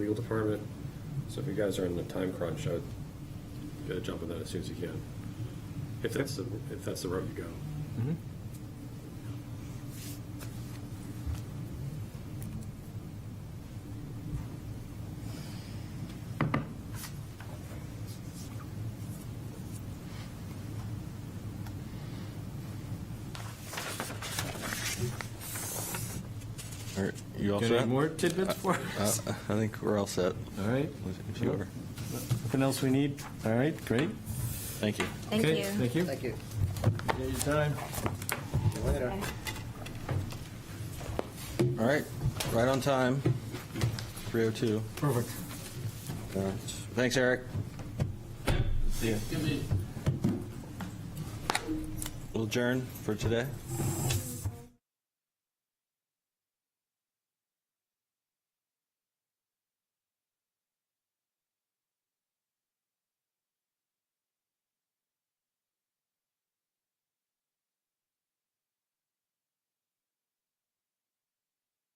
legal department. So if you guys are in a time crunch, I would get a jump on that as soon as you can. If that's the, if that's the route you go. Mm-hmm. All right, you all Got set? Any more tidbits for Uh, us? I think we're all set. All right. If you are. Nothing else we need? All right, great. Thank you. Thank Okay, you. Thank you. Thank you. Appreciate your time. See you later. Okay. All right, right on time, 3:02. Perfect. All right. Thanks, Eric. See ya. We'll adjourn for today.